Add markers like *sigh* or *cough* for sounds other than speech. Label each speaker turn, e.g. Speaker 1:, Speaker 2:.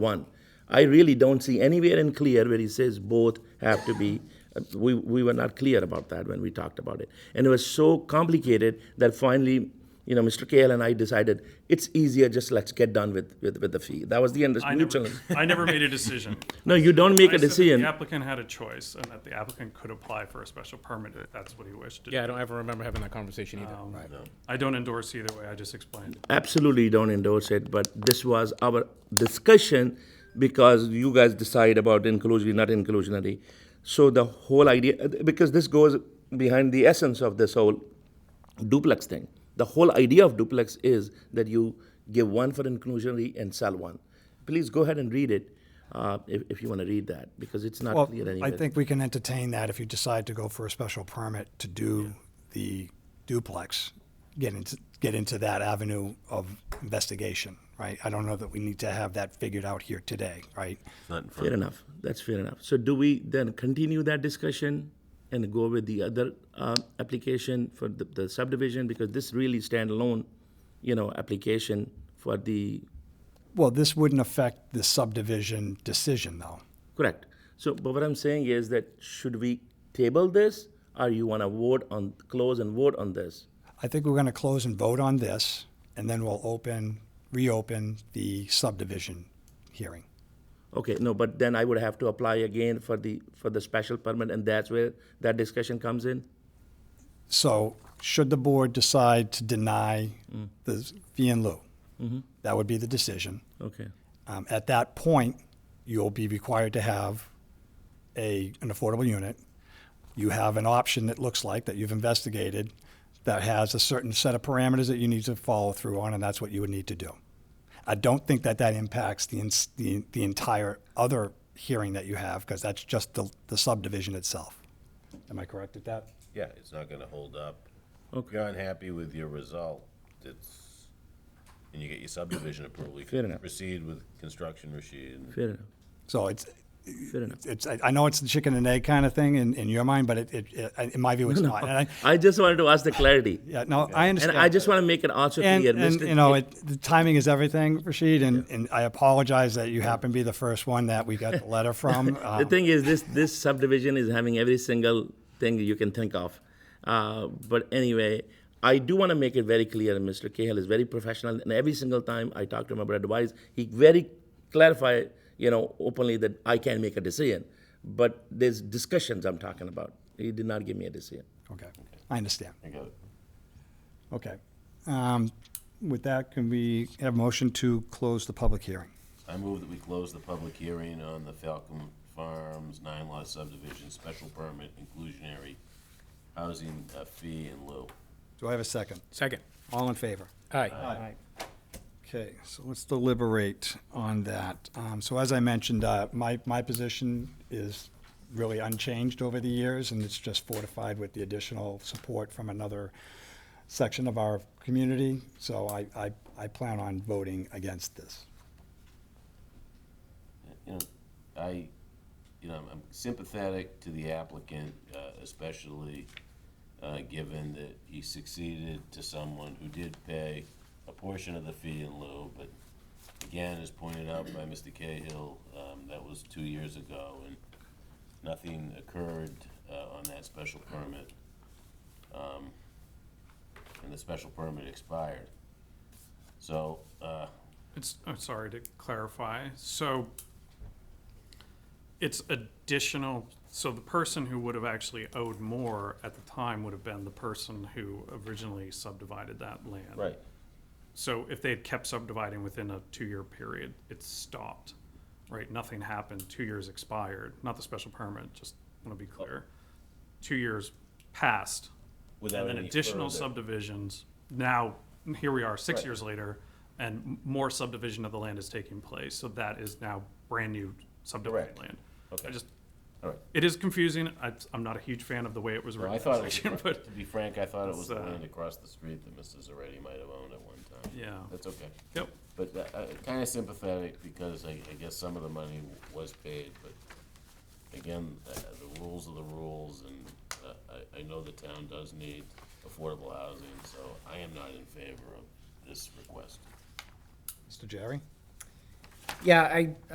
Speaker 1: one. I really don't see anywhere in clear where he says both have to be. uh, We, we were not clear about that when we talked about it. And it was so complicated that finally, you know, Mr. Kale and I decided it's easier, just let's get done with, with, with the fee. That was the end.
Speaker 2: I
Speaker 1: mutual.
Speaker 2: never, I never made a
Speaker 1: *laughs*
Speaker 2: decision.
Speaker 1: No, you don't make
Speaker 2: I
Speaker 1: a
Speaker 2: said that
Speaker 1: decision.
Speaker 2: The applicant had a choice and that the applicant could apply for a special permit if that's what he wished to do.
Speaker 3: Yeah, I don't ever remember having that conversation either.
Speaker 2: I don't endorse either way, I just explained.
Speaker 1: absolutely don't endorse it, but this was our discussion because you guys decide about inclusionary, not inclusionary. So the whole idea, because this goes behind the essence of this whole duplex thing. The whole idea of duplex is that you give one for inclusionary and sell one. Please go ahead and read it uh, if, if you want to read that because it's not
Speaker 4: Well,
Speaker 1: clear anyway.
Speaker 4: I think we can entertain that if you decide to go for a special permit to do the duplex, get into, get into that avenue of investigation, right? I don't know that we need to have that figured out here today, right?
Speaker 5: Not in front.
Speaker 1: Fair enough. That's fair enough. So do we then continue that discussion and go with the other uh, application for the, the subdivision? Because this really standalone, you know, application for the,
Speaker 4: Well, this wouldn't affect the subdivision decision, though.
Speaker 1: correct. So, but what I'm saying is that should we table this or you want to vote on, close and vote on this?
Speaker 4: I think we're gonna close and vote on this, and then we'll open, reopen the subdivision hearing.
Speaker 1: Okay, no, but then I would have to apply again for the, for the special permit and that's where that discussion comes in?
Speaker 4: So, should the board decide to deny the fee in lieu, that would be the decision.
Speaker 1: Okay,
Speaker 4: Um, at that point, you'll be required to have a, an affordable unit. You have an option that looks like that you've investigated that has a certain set of parameters that you need to follow through on, and that's what you would need to do. I don't think that that impacts the, ins- the, the entire other hearing that you have, because that's just the, the subdivision itself. Am I correct at that?
Speaker 5: Yeah, it's not gonna hold up.
Speaker 1: Okay.
Speaker 5: You're unhappy with your result, it's, and you get your subdivision approval. you
Speaker 1: Fair
Speaker 5: can
Speaker 1: enough.
Speaker 5: Proceed with construction, Rashid.
Speaker 1: fair enough,
Speaker 4: So it's,
Speaker 1: fair enough.
Speaker 4: it's, I I know it's the chicken and egg kind of thing in, in your mind, but it, it, it- in my view, it's not. And I,
Speaker 1: I just wanted to ask the clarity.
Speaker 4: yeah, no, I
Speaker 1: And
Speaker 4: understand.
Speaker 1: I just want to make it also
Speaker 4: And,
Speaker 1: clear,
Speaker 4: and,
Speaker 1: Mr.
Speaker 4: you know, it, the timing is everything, Rashid, and, and I apologize that you happen to be the first one that we got
Speaker 1: *laughs*
Speaker 4: the letter from.
Speaker 1: The
Speaker 4: Um,
Speaker 1: thing is, this this subdivision is having every single thing you can think of. Uh, but anyway, I do want to make it very clear, and Mr. Cahill is very professional, and every single time I talk to him about advice, he very clarify, you know, openly that I can make a decision. But there's discussions I'm talking about. He did not give me a decision.
Speaker 4: Okay, I understand.
Speaker 5: I got it.
Speaker 4: Okay. Um, With that, can we have motion to close the public hearing?
Speaker 5: I move that we close the public hearing on the Falcon Farms nine lot subdivision special permit inclusionary housing uh, fee in lieu.
Speaker 4: Do I have a second?
Speaker 3: Second.
Speaker 4: All in favor?
Speaker 3: Aye.
Speaker 4: Okay, so let's deliberate on that. Um, So as I mentioned, uh, my, my position is really unchanged over the years, and it's just fortified with the additional support from another section of our community. So I, I, I plan on voting against this.
Speaker 5: you know, I, you know, I'm sympathetic to the applicant, uh, especially uh, given that he succeeded to someone who did pay a portion of the fee in lieu, but again, as pointed out by Mr. Cahill, um, that was two years ago, and nothing occurred uh, on that special permit. Um, And the special permit expired. So, uh,
Speaker 2: It's, I'm sorry to clarify, so it's additional, so the person who would have actually owed more at the time would have been the person who originally subdivided that land.
Speaker 5: right,
Speaker 2: So if they had kept subdividing within a two-year period, it stopped, right? Nothing happened, two years expired, not the special permit, just want to be clear. Two years passed,
Speaker 5: without
Speaker 2: and then
Speaker 5: any
Speaker 2: additional
Speaker 5: further-
Speaker 2: subdivisions, now, here we are, six
Speaker 5: Right.
Speaker 2: years later, and m- more subdivision of the land is taking place, so that is now brand-new subdivided
Speaker 5: Correct.
Speaker 2: land. I
Speaker 5: Okay.
Speaker 2: just,
Speaker 5: All right.
Speaker 2: it is confusing, I, I'm not a huge fan of the way it was
Speaker 5: Well,
Speaker 2: written,
Speaker 5: I
Speaker 2: *laughs*
Speaker 5: thought it was,
Speaker 2: section,
Speaker 5: acro-
Speaker 2: but,
Speaker 5: to be frank, I thought it was the
Speaker 2: it's, uh,
Speaker 5: land across the street that Mrs. Zaretti might have owned at one time.
Speaker 2: yeah,
Speaker 5: That's okay.
Speaker 2: yep,
Speaker 5: But uh, uh, kinda sympathetic because I, I guess some of the money w- was paid, but again, uh, the rules are the rules and uh, I, I know the town does need affordable housing, so I am not in favor of this request.
Speaker 4: Mr. Jerry?
Speaker 6: Yeah, I,